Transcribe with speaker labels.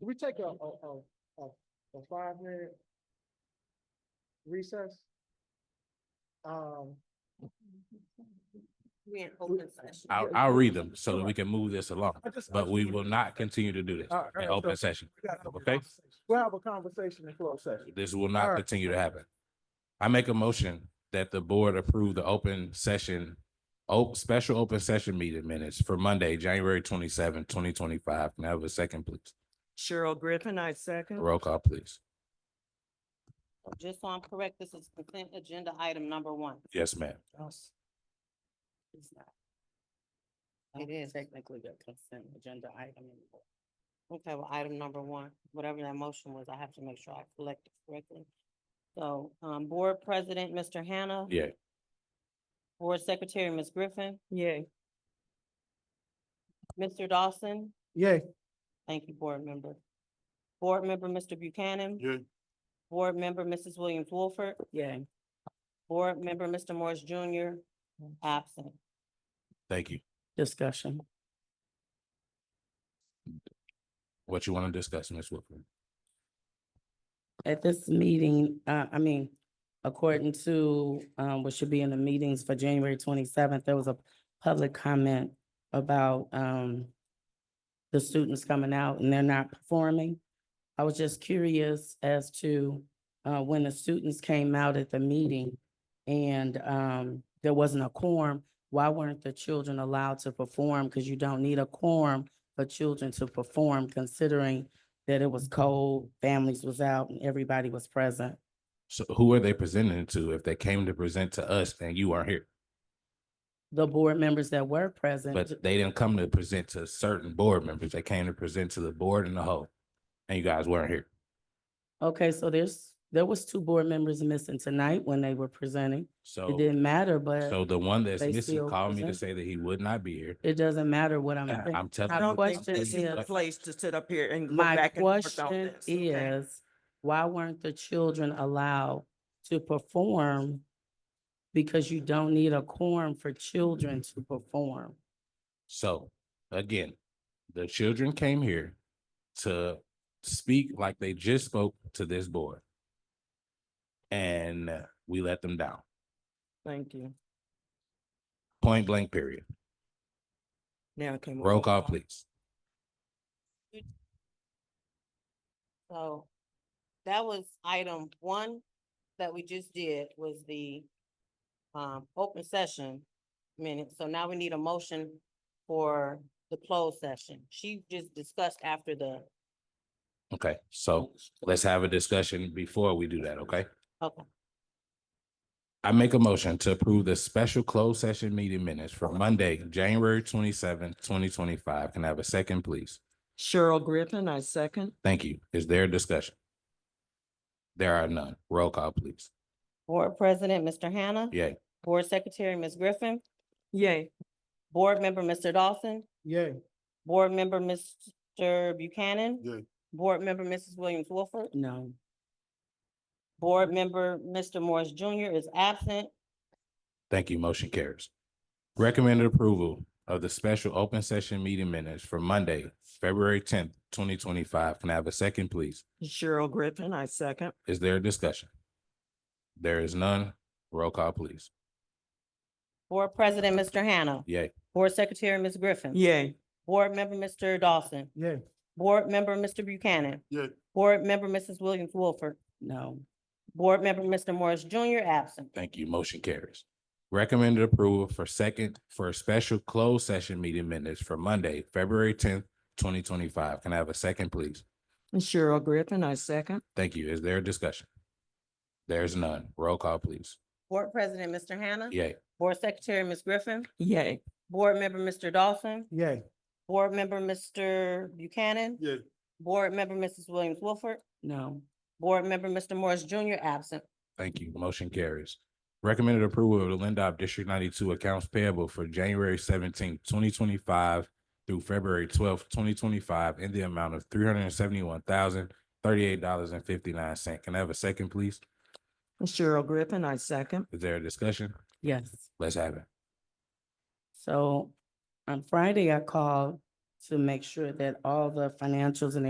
Speaker 1: Do we take a, a, a, a, a five minute recess? Um,
Speaker 2: We're in open session.
Speaker 3: I'll, I'll read them so that we can move this along,
Speaker 1: I just- I
Speaker 3: but
Speaker 1: just
Speaker 3: we
Speaker 1: wanna-
Speaker 3: will not continue to do this
Speaker 1: All right,
Speaker 3: in
Speaker 1: so-
Speaker 3: open session.
Speaker 1: we gotta have a
Speaker 3: okay?
Speaker 1: conversation. We'll have a conversation in closed session.
Speaker 3: This will
Speaker 1: All
Speaker 3: not
Speaker 1: right.
Speaker 3: continue to happen. I make a motion that the board approve the open session, oh, special open session meeting minutes for Monday, January twenty seventh, twenty twenty five. Can I have a second, please?
Speaker 4: Cheryl Griffin, I second.
Speaker 3: Roll call, please.
Speaker 2: Just so I'm correct, this is consent agenda item number one.
Speaker 3: Yes, ma'am.
Speaker 2: It is technically the consent agenda item. Okay, well, item number one, whatever that motion was, I have to make sure I collect it correctly. So, um, Board President, Mr. Hannah.
Speaker 3: Yeah.
Speaker 2: Board Secretary, Ms. Griffin,
Speaker 4: Yay.
Speaker 2: Mr. Dawson,
Speaker 1: Yay.
Speaker 2: thank you, Board Member. Board Member, Mr. Buchanan.
Speaker 5: Yay.
Speaker 2: Board Member, Mrs. Williams Wolford.
Speaker 4: Yay.
Speaker 2: Board Member, Mr. Morris Junior, absent.
Speaker 3: Thank you.
Speaker 4: Discussion.
Speaker 3: What you want to discuss, Ms. Whitford?
Speaker 4: At this meeting, uh, I mean, according to, um, what should be in the meetings for January twenty-seventh, there was a public comment about, um, the students coming out and they're not performing. I was just curious as to, uh, when the students came out at the meeting and, um, there wasn't a quorum, why weren't the children allowed to perform? Cause you don't need a quorum for children to perform considering that it was cold, families was out, and everybody was present.
Speaker 3: So who are they presenting to if they came to present to us and you are here?
Speaker 4: The board members that were present.
Speaker 3: But they didn't come to present to certain board members. They came to present to the board and the whole. And you guys weren't here.
Speaker 4: Okay, so there's, there was two board members missing tonight when they were presenting. It
Speaker 3: So,
Speaker 4: didn't matter, but
Speaker 3: so the one that's
Speaker 4: they
Speaker 3: missing
Speaker 4: still
Speaker 3: called me to
Speaker 4: present.
Speaker 3: say that he would not be here.
Speaker 4: it doesn't matter what I'm. thinking.
Speaker 3: I'm telling.
Speaker 4: My
Speaker 6: I don't think
Speaker 4: question
Speaker 6: this is a
Speaker 4: is-
Speaker 6: place to sit up here and go
Speaker 4: My
Speaker 6: back and forth on
Speaker 4: question
Speaker 6: this. okay?
Speaker 4: is, why weren't the children allowed to perform? Because you don't need a quorum for children to perform.
Speaker 3: So, again, the children came here to speak like they just spoke to this board. And we let them down,
Speaker 6: Thank you.
Speaker 3: point blank period.
Speaker 6: Now can. we
Speaker 3: Roll
Speaker 6: move on?
Speaker 3: call, please.
Speaker 2: So that was item one that we just did was the um, open session minute. So now we need a motion for the closed session. She just discussed after the,
Speaker 3: Okay, so let's have a discussion before we do that, okay?
Speaker 2: okay,
Speaker 3: I make a motion to approve the special closed session meeting minutes for Monday, January twenty seventh, twenty twenty five. Can I have a second, please?
Speaker 6: Cheryl Griffin, I second.
Speaker 3: Thank you. Is there a discussion? There are none. Roll call, please.
Speaker 2: Board President, Mr. Hannah.
Speaker 3: Yay.
Speaker 2: Board Secretary, Ms. Griffin.
Speaker 6: Yay.
Speaker 2: Board Member, Mr. Dawson.
Speaker 1: Yay.
Speaker 2: Board Member, Mr. Buchanan.
Speaker 5: Yay.
Speaker 2: Board Member, Mrs. Williams Wolford.
Speaker 4: No.
Speaker 2: Board Member, Mr. Morris Junior is absent.
Speaker 3: Thank you. Motion carries. Recommended approval of the special open session meeting minutes for Monday, February tenth, twenty twenty five. Can I have a second, please?
Speaker 6: Cheryl Griffin, I second.
Speaker 3: Is there a discussion? There is none. Roll call, please.
Speaker 2: Board President, Mr. Hannah.
Speaker 3: Yay.
Speaker 2: Board Secretary, Ms. Griffin.
Speaker 6: Yay.
Speaker 2: Board Member, Mr. Dawson.
Speaker 1: Yay.
Speaker 2: Board Member, Mr. Buchanan.
Speaker 5: Yay.
Speaker 2: Board Member, Mrs. Williams Wolford.
Speaker 4: No.
Speaker 2: Board Member, Mr. Morris Junior, absent.
Speaker 3: Thank you. Motion carries. Recommended approval for second, for a special closed session meeting minutes for Monday, February tenth, twenty twenty-five. Can I have a second, please?
Speaker 6: Cheryl Griffin, I second.
Speaker 3: Thank you. Is there a discussion? There's none. Roll call, please.
Speaker 2: Board President, Mr. Hannah.
Speaker 3: Yay.
Speaker 2: Board Secretary, Ms. Griffin.
Speaker 6: Yay.
Speaker 2: Board Member, Mr. Dawson.
Speaker 1: Yay.
Speaker 2: Board Member, Mr. Buchanan.
Speaker 5: Yay.
Speaker 2: Board Member, Mrs. Williams Wolford.
Speaker 4: No.
Speaker 2: Board Member, Mr. Morris Junior, absent.
Speaker 3: Thank you. Motion carries. Recommended approval of the Lindop District ninety-two accounts payable for January seventeenth, twenty twenty-five through February twelfth, twenty twenty-five in the amount of three hundred and seventy-one thousand, thirty-eight dollars and fifty-nine cent. Can I have a second, please?
Speaker 6: Cheryl Griffin, I second.
Speaker 3: Is there a discussion?
Speaker 4: Yes.
Speaker 3: Let's have it.
Speaker 4: So on Friday, I called to make sure that all the financials and